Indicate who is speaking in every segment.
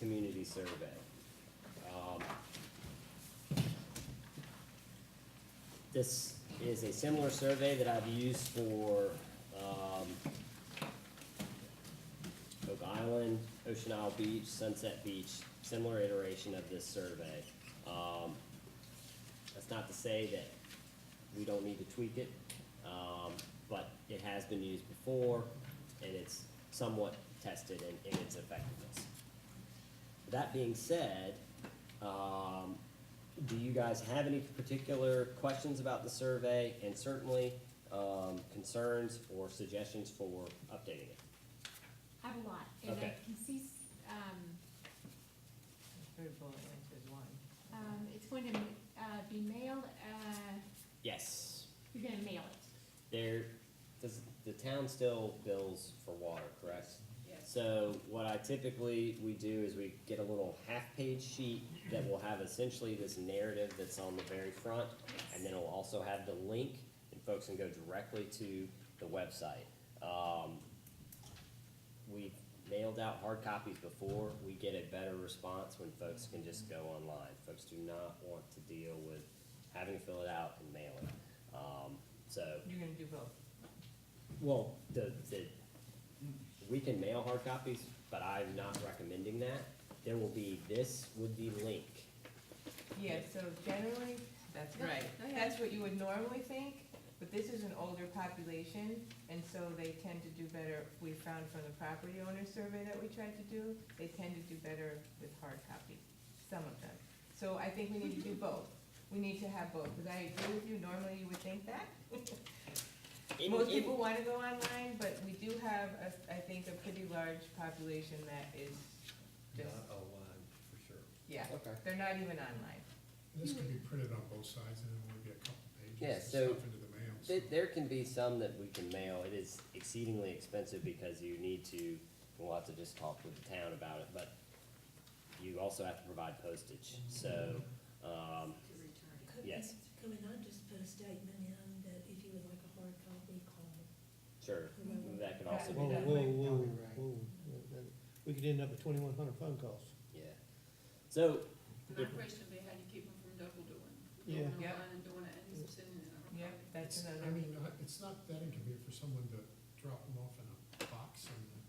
Speaker 1: community survey. Um, This is a similar survey that I've used for, um, Oak Island, Ocean Isle Beach, Sunset Beach, similar iteration of this survey. Um, that's not to say that we don't need to tweak it, um, but it has been used before, and it's somewhat tested in, in its effectiveness. That being said, um, do you guys have any particular questions about the survey, and certainly, um, concerns or suggestions for updating it?
Speaker 2: I have a lot, and I
Speaker 1: Okay.
Speaker 2: can see, s- um,
Speaker 3: Third bullet point is one.
Speaker 2: um, it's going to, uh, be mailed, uh,
Speaker 1: Yes,
Speaker 2: you're gonna mail it.
Speaker 1: there, does, the town still bills for water, correct?
Speaker 4: Yes.
Speaker 1: So what I typically, we do is we get a little half-page sheet that will have essentially this narrative that's on the very front, and then it'll also have the link, and folks can go directly to the website. Um, we've mailed out hard copies before, we get a better response when folks can just go online. Folks do not want to deal with having to fill it out and mail it. Um, so
Speaker 3: You're gonna do both.
Speaker 1: well, the, the, we can mail hard copies, but I'm not recommending that. There will be, this would be link.
Speaker 3: Yeah, so generally, that's right.
Speaker 4: No, no, yeah.
Speaker 3: That's what you would normally think, but this is an older population, and so they tend to do better. We found from the property owner survey that we tried to do, they tend to do better with hard copy, some of them. So I think we need to do both. We need to have both, because I agree with you, normally you would think that.
Speaker 1: In-
Speaker 3: Most
Speaker 1: in-
Speaker 3: people wanna go online, but we do have, a- I think, a pretty large population that is just,
Speaker 5: Not a line, for sure.
Speaker 3: yeah,
Speaker 1: Okay.
Speaker 3: they're not even online.
Speaker 6: This could be printed on both sides and then would be a couple pages
Speaker 1: Yeah,
Speaker 6: and
Speaker 1: so
Speaker 6: stuff into the mail.
Speaker 1: There,
Speaker 6: so-
Speaker 1: there can be some that we can mail. It is exceedingly expensive because you need to, we'll have to just talk with the town about it, but you also have to provide postage, so, um,
Speaker 4: To return.
Speaker 7: Could-
Speaker 1: Yes.
Speaker 7: Could we not just put a statement in that if you would like a hard copy, call
Speaker 1: sure,
Speaker 7: whoever?
Speaker 1: that could also
Speaker 3: Yeah.
Speaker 1: be
Speaker 8: Whoa,
Speaker 1: done.
Speaker 8: whoa,
Speaker 3: Right.
Speaker 8: whoa,
Speaker 3: Probably right.
Speaker 8: whoa. Yeah, that- We could end up with twenty-one hundred phone calls.
Speaker 1: Yeah. So,
Speaker 4: My question would be how do you keep them from double doing?
Speaker 8: Yeah.
Speaker 4: Going
Speaker 3: Yep.
Speaker 4: online and doing it and sending it. out.
Speaker 3: Yep, that's
Speaker 6: It's-
Speaker 3: another.
Speaker 6: I mean, uh, it's not that inconvenient for someone to drop them off in a box in the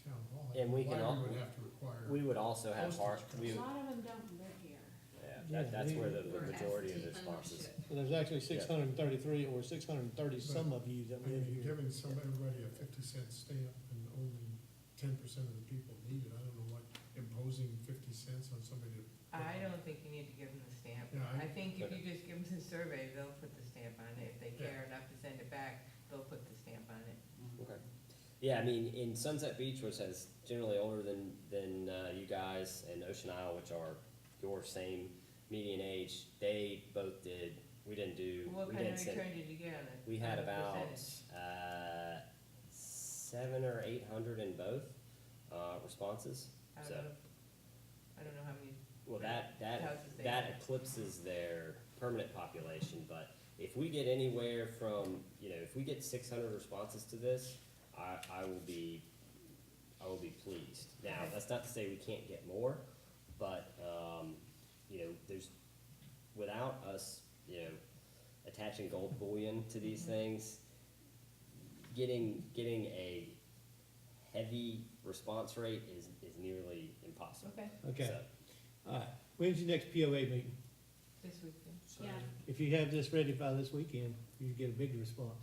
Speaker 6: town hall.
Speaker 1: And we can
Speaker 6: Why
Speaker 1: al-
Speaker 6: we would have to require.
Speaker 1: we would also have hard, we,
Speaker 2: A
Speaker 1: would-
Speaker 2: lot of them don't live here.
Speaker 1: yeah, that, that's where the, the
Speaker 4: Or
Speaker 1: majority of the
Speaker 4: absentee
Speaker 1: responses.
Speaker 4: ownership.
Speaker 8: So there's actually six hundred and thirty-three or six hundred and thirty some of you that
Speaker 6: I
Speaker 8: live
Speaker 6: mean, you're
Speaker 8: here.
Speaker 6: giving some, everybody a fifty cent stamp and only ten percent of the people need it. I don't know what imposing fifty cents on somebody to.
Speaker 3: I don't think you need to give them the stamp.
Speaker 6: Yeah, I-
Speaker 3: I think if you just give them the survey, they'll put the stamp on it. If they care enough to send it back, they'll put the stamp on it.
Speaker 1: Okay. Yeah, I mean, in Sunset Beach, which is generally older than, than uh, you guys, and Ocean Isle, which are your same median age, they both did, we didn't do,
Speaker 3: What
Speaker 1: we
Speaker 3: kind
Speaker 1: didn't
Speaker 3: of
Speaker 1: send.
Speaker 3: return did you get on it?
Speaker 1: We had
Speaker 3: On the
Speaker 1: about,
Speaker 3: percentage?
Speaker 1: uh, seven or eight hundred in both, uh, responses.
Speaker 3: I
Speaker 1: so-
Speaker 3: don't know, I don't know how many,
Speaker 1: Well, that, that,
Speaker 3: Houses they
Speaker 1: that
Speaker 3: have.
Speaker 1: eclipses their permanent population, but if we get anywhere from, you know, if we get six hundred responses to this, I, I will be, I will be pleased. Now, that's not to say we can't get more, but, um, you know, there's, without us, you know, attaching gold bullion to these things, getting, getting a heavy response rate is, is nearly impossible.
Speaker 3: okay,
Speaker 8: Okay,
Speaker 1: So-
Speaker 8: all right. When's your next POA meeting?
Speaker 3: this weekend.
Speaker 2: Yeah,
Speaker 8: If you have this ready by this weekend, you get a big response.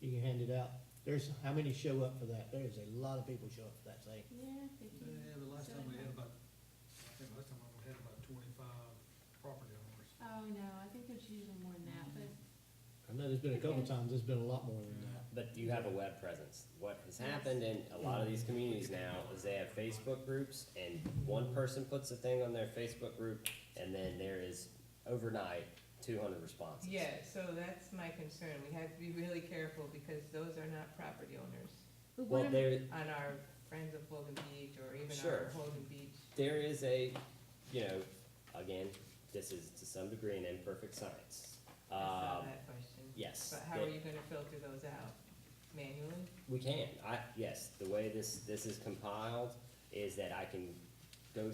Speaker 8: You can hand it out. There's, how many show up for that? There is a lot of people show up for that thing.
Speaker 2: yeah, they do.
Speaker 5: Yeah, the last time we had about, I think last time we had about twenty-five property owners.
Speaker 2: Oh, no, I think there's usually more than that, but
Speaker 8: I know there's been a couple
Speaker 2: Okay.
Speaker 8: times, there's been a lot more than that.
Speaker 1: But you have a web presence. What has happened in a lot of these communities now is they have Facebook groups and one person puts a thing on their Facebook group and then there is overnight two hundred responses.
Speaker 3: Yeah, so that's my concern. We have to be really careful because those are not property owners
Speaker 2: but what
Speaker 1: Well,
Speaker 2: I'm,
Speaker 1: there,
Speaker 3: on our Friends of Holden Beach or even
Speaker 1: Sure.
Speaker 3: our Holden Beach.
Speaker 1: there is a, you know, again, this is to some degree an imperfect science.
Speaker 3: I saw
Speaker 1: Um,
Speaker 3: that question.
Speaker 1: yes.
Speaker 3: But how
Speaker 1: that-
Speaker 3: are you gonna filter those out? Manually?
Speaker 1: We can, I, yes, the way this, this is compiled is that I can go